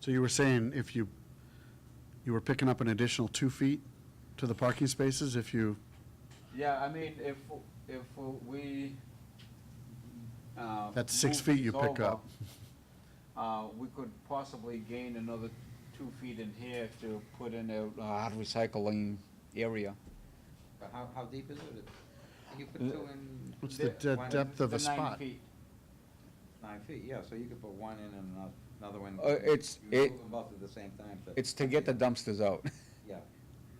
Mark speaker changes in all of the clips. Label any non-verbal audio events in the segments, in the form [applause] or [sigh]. Speaker 1: So you were saying if you, you were picking up an additional two feet to the parking spaces if you,
Speaker 2: Yeah, I mean, if, if we, uh.
Speaker 1: That's six
Speaker 2: move
Speaker 1: feet you
Speaker 2: these
Speaker 1: pick
Speaker 2: over,
Speaker 1: up.
Speaker 2: [laughs] Uh, we could possibly gain another two feet in here to put in a, uh, hard recycling area.
Speaker 3: But how, how deep is it? You put
Speaker 2: Uh,
Speaker 3: two in.
Speaker 1: what's the
Speaker 3: there,
Speaker 1: de-
Speaker 3: one in-
Speaker 1: depth of
Speaker 2: The
Speaker 1: a
Speaker 2: nine
Speaker 1: spot?
Speaker 2: feet.
Speaker 3: Nine feet, yeah, so you could put one in and ano- another one.
Speaker 2: Uh, it's-
Speaker 3: You would
Speaker 2: it-
Speaker 3: move them both at the same time, but.
Speaker 2: It's to get the dumpsters out. [laughs]
Speaker 3: Yeah,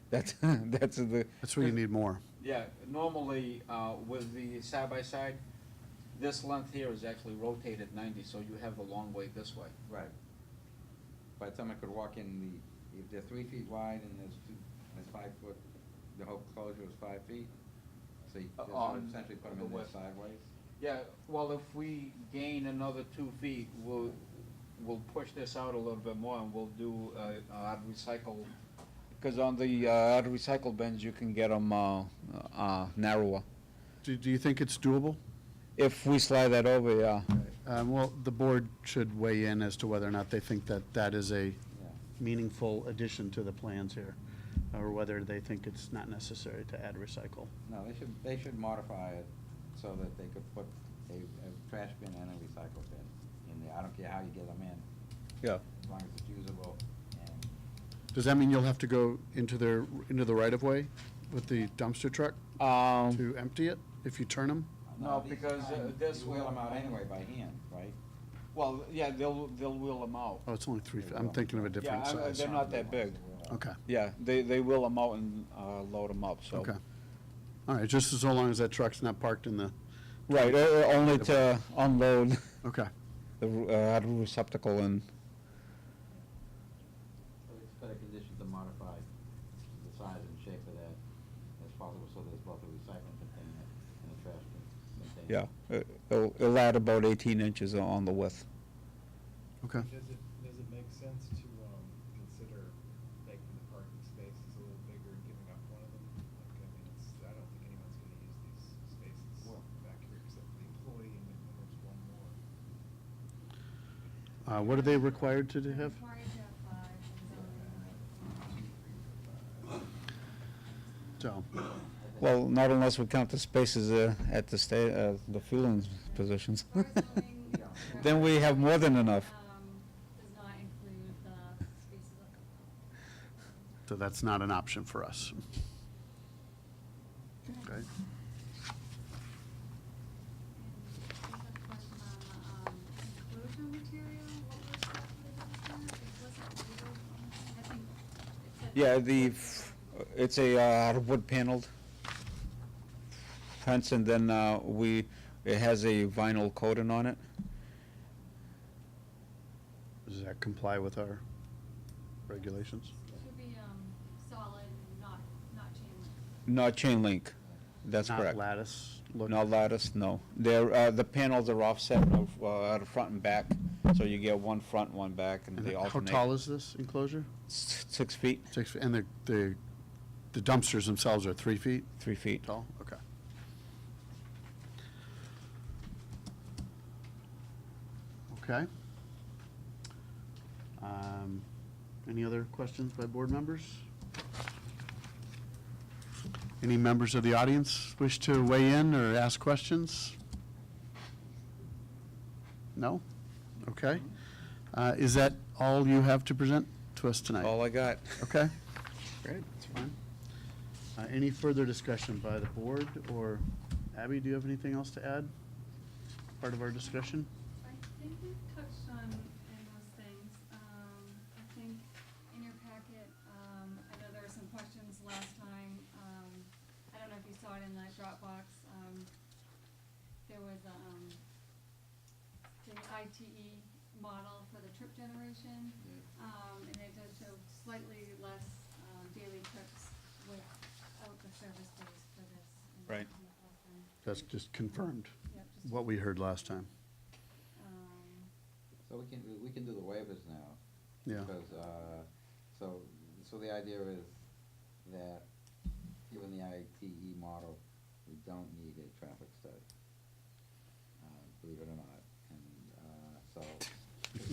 Speaker 2: That's, [laughs] that's the.
Speaker 1: That's where you need more.
Speaker 2: Yeah, normally, uh, with the side-by-side, this length here is actually rotated ninety, so you have the long way this way.
Speaker 3: right. By the time I could walk in the, if they're three feet wide and there's two, there's five foot, the whole closure is five feet. So you
Speaker 2: Uh,
Speaker 3: just
Speaker 2: on
Speaker 3: would essentially put them
Speaker 2: the
Speaker 3: in there
Speaker 2: west.
Speaker 3: sideways.
Speaker 2: Yeah, well, if we gain another two feet, we'll, we'll push this out a little bit more and we'll do, uh, uh, recycle. Cause on the, uh, recycle bins, you can get them, uh, uh, narrower.
Speaker 1: Do, do you think it's doable?
Speaker 2: If we slide that over, yeah.
Speaker 1: Um, well, the board should weigh in as to whether or not they think that that is a
Speaker 3: Yeah.
Speaker 1: meaningful addition to the plans here, or whether they think it's not necessary to add recycle.
Speaker 3: No, they should, they should modify it so that they could put a, a trash bin and a recycle bin in there. I don't care how you get them in.
Speaker 2: Yeah.
Speaker 3: as long as it's usable and.
Speaker 1: Does that mean you'll have to go into their, into the right-of-way with the dumpster truck
Speaker 2: Um,
Speaker 1: to empty it if you turn them?
Speaker 2: No,
Speaker 3: these
Speaker 2: because, uh,
Speaker 3: kind,
Speaker 2: this
Speaker 3: You wheel
Speaker 2: will-
Speaker 3: them out anyway by hand, right?
Speaker 2: well, yeah, they'll, they'll wheel them out.
Speaker 1: Oh, it's only three, feet. I'm thinking of a different
Speaker 2: Yeah, I- I-
Speaker 1: size.
Speaker 2: they're not that big.
Speaker 1: Okay,
Speaker 2: Yeah, they, they wheel them out and, uh, load them up, so.
Speaker 1: okay. All right, just as long as that truck's not parked in the,
Speaker 2: Right, uh, uh, only to unload
Speaker 1: okay.
Speaker 2: the, uh, receptacle and.
Speaker 3: So it's got a condition to modify the size and shape of that as possible, so there's both a recycling container and
Speaker 2: Yeah,
Speaker 3: a trash container.
Speaker 2: it- it'll, it'll add about 18 inches on the width.
Speaker 1: Okay.
Speaker 4: Does it, does it make sense to, um, consider making the parking spaces a little bigger and giving up one of them? Like, I mean, it's, I don't think anyone's gonna use these spaces
Speaker 3: Well-
Speaker 4: back here except for the employee and then there's one more.
Speaker 1: Uh, what are they required to do- have?
Speaker 5: Required to have five in zoning.
Speaker 1: So,
Speaker 2: Well, not unless we count the spaces uh, at the sta, uh, the fueling positions. [laughs]
Speaker 5: Our zoning
Speaker 2: Then we have more than enough.
Speaker 5: um, Does not include the spaces up above.
Speaker 1: so that's not an option for us. Okay.
Speaker 5: And there's a question on, um, enclosure material, what was that for the business? It wasn't labeled on the- I think it said-
Speaker 2: Yeah, the, f- it's a uh, wood paneled fence and then uh, we, it has a vinyl coating on it.
Speaker 1: Does that comply with our regulations?
Speaker 5: Should be, um, solid, not, not chain link.
Speaker 2: Not chain link, that's correct.
Speaker 1: Not lattice? look?
Speaker 2: No lattice, no. They're, uh, the panels are offset of, uh, out of front and back, so you get one front, one back, and
Speaker 1: And
Speaker 2: they
Speaker 1: How
Speaker 2: alternate.
Speaker 1: tall is this enclosure?
Speaker 2: S- Six feet,
Speaker 1: Six, feet. and the, the the dumpsters themselves are three feet
Speaker 2: three feet.
Speaker 1: tall? Okay. Okay. Um, Any other questions by board members? Any members of the audience wish to weigh in or ask questions? No? Okay. Uh, Is that all you have to present to us tonight?
Speaker 2: All I got.
Speaker 1: Okay. Great, that's fine. Uh, Any further discussion by the board, or Abby, do you have anything else to add? Part of our discussion?
Speaker 5: I think we touched on in those things. Um, I think in your packet, um, I know there were some questions last time. Um, I don't know if you saw it in the Dropbox. Um, there was, um, the ITE model for the trip generation. Um, and it does show slightly less, um, daily trips without the service days for this. and
Speaker 2: Right.
Speaker 5: in the fall time.
Speaker 1: That's just confirmed
Speaker 5: Yep, just,
Speaker 1: what we heard last time.
Speaker 5: um,
Speaker 3: So we can, we can do the waivers now.
Speaker 1: Yeah.
Speaker 3: Because, uh, so, so the idea is that given the E ITE model, we don't need a traffic study. Uh, Believe it or not. uh,